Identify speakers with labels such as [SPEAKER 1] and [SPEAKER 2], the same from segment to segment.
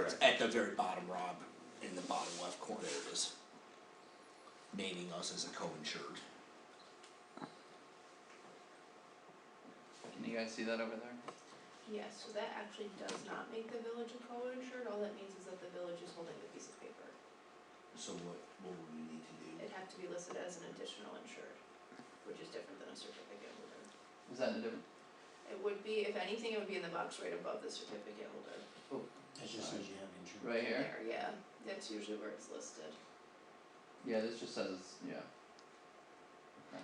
[SPEAKER 1] the very bottom, Rob, in the bottom left corner, it is naming us as a co-insured.
[SPEAKER 2] Can you guys see that over there?
[SPEAKER 3] Yes, so that actually does not make the village a co-insured, all that means is that the village is holding the piece of paper.
[SPEAKER 1] So what, what would we need to do?
[SPEAKER 3] It'd have to be listed as an additional insured, which is different than a certificate holder.
[SPEAKER 2] Is that in a different?
[SPEAKER 3] It would be, if anything, it would be in the box right above the certificate holder.
[SPEAKER 4] That just says you have insurance.
[SPEAKER 2] Right here?
[SPEAKER 3] There, yeah, that's usually where it's listed.
[SPEAKER 2] Yeah, this just says, yeah.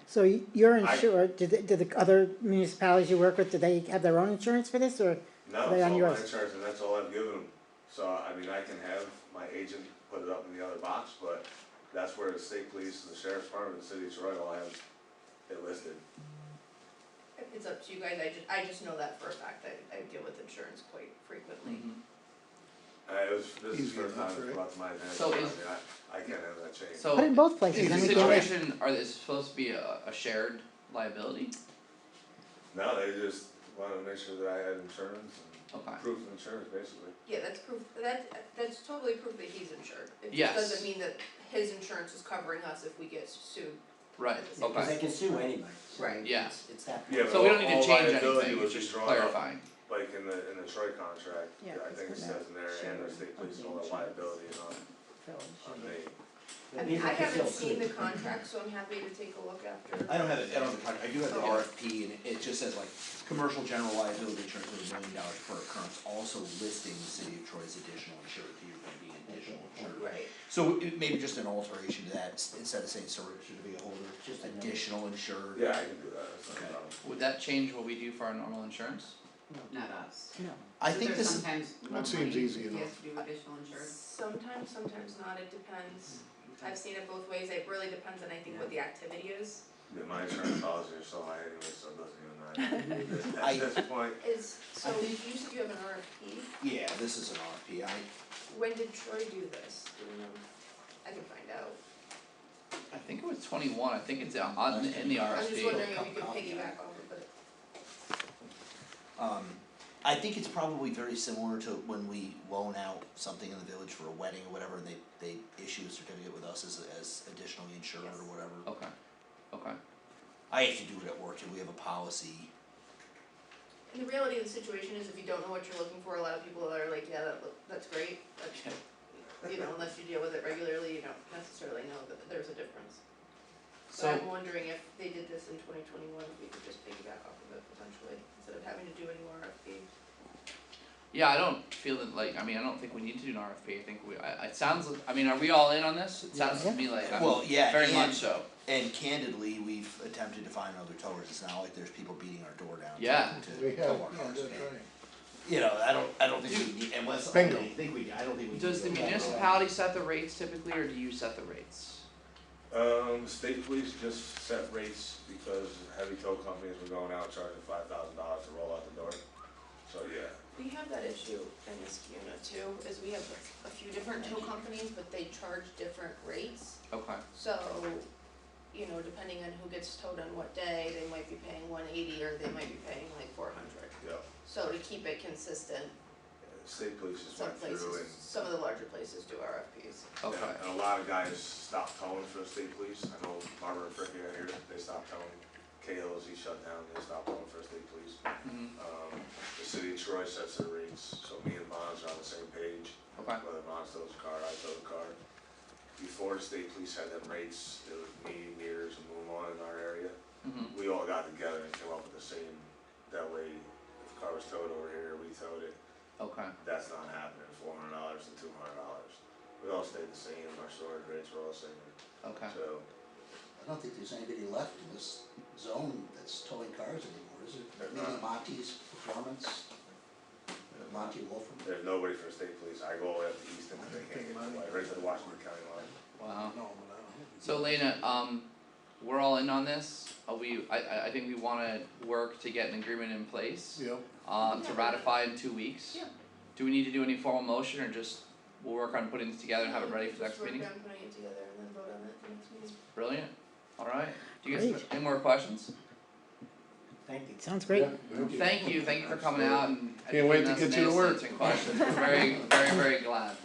[SPEAKER 5] So y- you're
[SPEAKER 6] I-
[SPEAKER 5] insured, do the, do the other municipalities you work with, do they have their own insurance for this, or?
[SPEAKER 6] No,
[SPEAKER 5] They
[SPEAKER 6] it's all
[SPEAKER 5] on
[SPEAKER 6] my
[SPEAKER 5] yours.
[SPEAKER 6] insurance, and that's all I've given them. So, I mean, I can have my agent put it up in the other box, but that's where the state police, the sheriff's department, the city of Troy all have it listed.
[SPEAKER 3] It's up to you guys, I just, I just know that for a fact, I, I deal with insurance quite frequently.
[SPEAKER 2] Mm-hmm.
[SPEAKER 6] Mm-hmm. Uh, it was, this is
[SPEAKER 4] Easy
[SPEAKER 6] the first time
[SPEAKER 4] enough,
[SPEAKER 6] it's
[SPEAKER 4] right?
[SPEAKER 6] brought to my attention,
[SPEAKER 2] So
[SPEAKER 6] I mean,
[SPEAKER 2] is-
[SPEAKER 6] I, I can't have that changed.
[SPEAKER 2] So,
[SPEAKER 5] But in both places,
[SPEAKER 2] is the
[SPEAKER 5] then we
[SPEAKER 6] Easy
[SPEAKER 5] get it.
[SPEAKER 2] situation, are this supposed to be a, a shared liability?
[SPEAKER 6] No, they just wanted to make sure that I had insurance
[SPEAKER 2] Okay.
[SPEAKER 6] and proof of insurance, basically.
[SPEAKER 3] Yeah, that's proof, that, that's totally proof that he's insured. It just
[SPEAKER 2] Yes.
[SPEAKER 3] doesn't mean that his insurance is covering us if we get sued.
[SPEAKER 2] Right,
[SPEAKER 3] Yeah,
[SPEAKER 4] Because
[SPEAKER 2] okay.
[SPEAKER 4] they can sue anybody, so
[SPEAKER 3] Right.
[SPEAKER 2] Yeah.
[SPEAKER 4] it's, it's that.
[SPEAKER 6] Yeah,
[SPEAKER 2] So we don't
[SPEAKER 6] All-
[SPEAKER 2] need
[SPEAKER 6] all
[SPEAKER 2] to change
[SPEAKER 6] liability
[SPEAKER 2] anything,
[SPEAKER 6] was
[SPEAKER 2] it's
[SPEAKER 6] just
[SPEAKER 2] just
[SPEAKER 6] drawn up.
[SPEAKER 2] clarifying.
[SPEAKER 6] Like in the, in the Troy contract,
[SPEAKER 5] Yeah,
[SPEAKER 6] I
[SPEAKER 5] it's
[SPEAKER 6] think it
[SPEAKER 5] in
[SPEAKER 6] says in there, and the state police and all that liability and on, on me.
[SPEAKER 3] I mean, I haven't seen the contract, so I'm happy to take a look after.
[SPEAKER 1] I don't have it, I don't have the contract, I do have the
[SPEAKER 3] Okay.
[SPEAKER 1] RFP and it- it just says like, commercial general liability insurance with a million dollars per occurrence, also listing the city of Troy's additional insured, that you're gonna be an additional insured.
[SPEAKER 3] Right,
[SPEAKER 1] So it may be just an alteration to that, s- instead of saying certificate holder,
[SPEAKER 4] Just a note.
[SPEAKER 1] additional insured.
[SPEAKER 6] Yeah, I can do that, that's not a
[SPEAKER 1] Okay.
[SPEAKER 6] problem.
[SPEAKER 2] Would that change what we do for our normal insurance?
[SPEAKER 7] Not us.
[SPEAKER 1] I think
[SPEAKER 7] There's
[SPEAKER 1] this, is-
[SPEAKER 7] sometimes more
[SPEAKER 8] That seems
[SPEAKER 7] money
[SPEAKER 8] easy
[SPEAKER 7] if you have
[SPEAKER 8] enough.
[SPEAKER 7] to do additional insurance.
[SPEAKER 3] sometimes, sometimes not, it depends. I've seen it both ways, it really depends on, I think, what the activity is.
[SPEAKER 6] Yeah, my insurance policy is so high anyway, so it doesn't even matter.
[SPEAKER 1] I-
[SPEAKER 6] At this point,
[SPEAKER 3] Is, so
[SPEAKER 1] I
[SPEAKER 3] you said you have an RFP,
[SPEAKER 1] yeah, this is an RFP, I,
[SPEAKER 3] when did Troy do this? Do you know? I can find out.
[SPEAKER 2] I think it was twenty-one, I think it's on, on- in the
[SPEAKER 3] I'm just
[SPEAKER 2] RSP.
[SPEAKER 3] wondering if we could piggyback off of it.
[SPEAKER 1] Um, I think it's probably very similar to when we loan out something in the village for a wedding or whatever, and they, they issue a certificate with us as, as additionally insured or whatever.
[SPEAKER 2] Okay, okay.
[SPEAKER 1] I have to do it at work, and we have a policy.
[SPEAKER 3] And the reality of the situation is if you don't know what you're looking for, a lot of people are like, yeah, that look, that's great, but you know, unless you deal with it regularly, you don't necessarily know that there's a difference. So
[SPEAKER 2] So,
[SPEAKER 3] I'm wondering if they did this in twenty twenty-one, if we could just piggyback off of it potentially, instead of having to do any more RFP.
[SPEAKER 2] yeah, I don't feel that, like, I mean, I don't think we need to do an RFP, I think we, I, it sounds, I mean, are we all in on this? It sounds to me like, I'm
[SPEAKER 1] Well, yeah,
[SPEAKER 2] very much
[SPEAKER 1] and-
[SPEAKER 2] so,
[SPEAKER 1] And candidly, we've attempted to find other towers, it's not like there's people beating our door down
[SPEAKER 2] Yeah.
[SPEAKER 1] to,
[SPEAKER 8] We
[SPEAKER 1] to
[SPEAKER 8] have,
[SPEAKER 1] tow our
[SPEAKER 8] yeah,
[SPEAKER 1] cars
[SPEAKER 8] that's
[SPEAKER 1] down.
[SPEAKER 8] right.
[SPEAKER 1] You know, I don't, I don't think we need, unless, I
[SPEAKER 8] Bingo.
[SPEAKER 1] don't think we, I don't think we need.
[SPEAKER 2] Does
[SPEAKER 1] to
[SPEAKER 2] the
[SPEAKER 1] go that route.
[SPEAKER 2] municipality set the rates typically, or do you set the rates?
[SPEAKER 6] um, state police just set rates because heavy tow companies were going out charging five thousand dollars to roll out the door. So, yeah,
[SPEAKER 3] We have that issue in this unit too, is we have a few different tow companies, but they charge different rates.
[SPEAKER 2] Okay,
[SPEAKER 3] So, you know, depending on who gets towed on what day, they might be paying one eighty or they might be paying like four hundred.
[SPEAKER 6] yeah,
[SPEAKER 3] So to keep it consistent,
[SPEAKER 6] state police just
[SPEAKER 3] some
[SPEAKER 6] went
[SPEAKER 3] places,
[SPEAKER 6] through and
[SPEAKER 3] some of the larger places do RFPs.
[SPEAKER 2] okay,
[SPEAKER 6] Yeah, And a lot of guys stopped towing for the state police, I know Barbara and Fricky are here, they stopped towing, KLZ shut down, they stopped towing for the state police.
[SPEAKER 2] Mhm.
[SPEAKER 6] Um, the city of Troy sets their rates, so me and Bonds are on the same page,
[SPEAKER 2] okay,
[SPEAKER 6] whether Bonds tows a car, I tow a car. Before the state police had them rates, it was me, Mears, and Moon in our area,
[SPEAKER 2] mhm,
[SPEAKER 6] we all got together and came up with the same, that way, if a car was towed over here, we towed it,
[SPEAKER 2] okay,
[SPEAKER 6] that's not happening, four hundred dollars and two hundred dollars. We all stayed the same, our storage rates were all the same,
[SPEAKER 2] okay.
[SPEAKER 6] so,
[SPEAKER 4] I don't think there's anybody left in this zone that's towing cars anymore, is it?
[SPEAKER 6] They're not.
[SPEAKER 4] Maybe Monty's Performance, Monty Wolfram.
[SPEAKER 6] there's nobody for the state police, I go all the way up to Easton, and they can't get to the line, right to the Washington County line.
[SPEAKER 2] Wow.
[SPEAKER 4] No, but I don't know.
[SPEAKER 2] So Lena, um, we're all in on this, uh, we, I- I, I think we wanna work to get an agreement in place,
[SPEAKER 8] Yep.
[SPEAKER 2] um, to
[SPEAKER 3] Yeah.
[SPEAKER 2] ratify in two weeks.
[SPEAKER 3] Yeah.
[SPEAKER 2] Do we need to do any formal motion, or just, we'll work on putting this together and have it ready for the next meeting?
[SPEAKER 3] Just work on putting it together and then vote on it next meeting.
[SPEAKER 2] Brilliant, alright, do you guys,
[SPEAKER 5] Great.
[SPEAKER 2] any more questions?
[SPEAKER 4] Thank you.
[SPEAKER 5] Sounds great.
[SPEAKER 2] Thank you, thank you for coming out and
[SPEAKER 8] Can't
[SPEAKER 2] educating
[SPEAKER 8] wait to
[SPEAKER 2] us
[SPEAKER 8] get
[SPEAKER 2] and
[SPEAKER 8] you to work.
[SPEAKER 2] answering questions, we're very, very, very glad.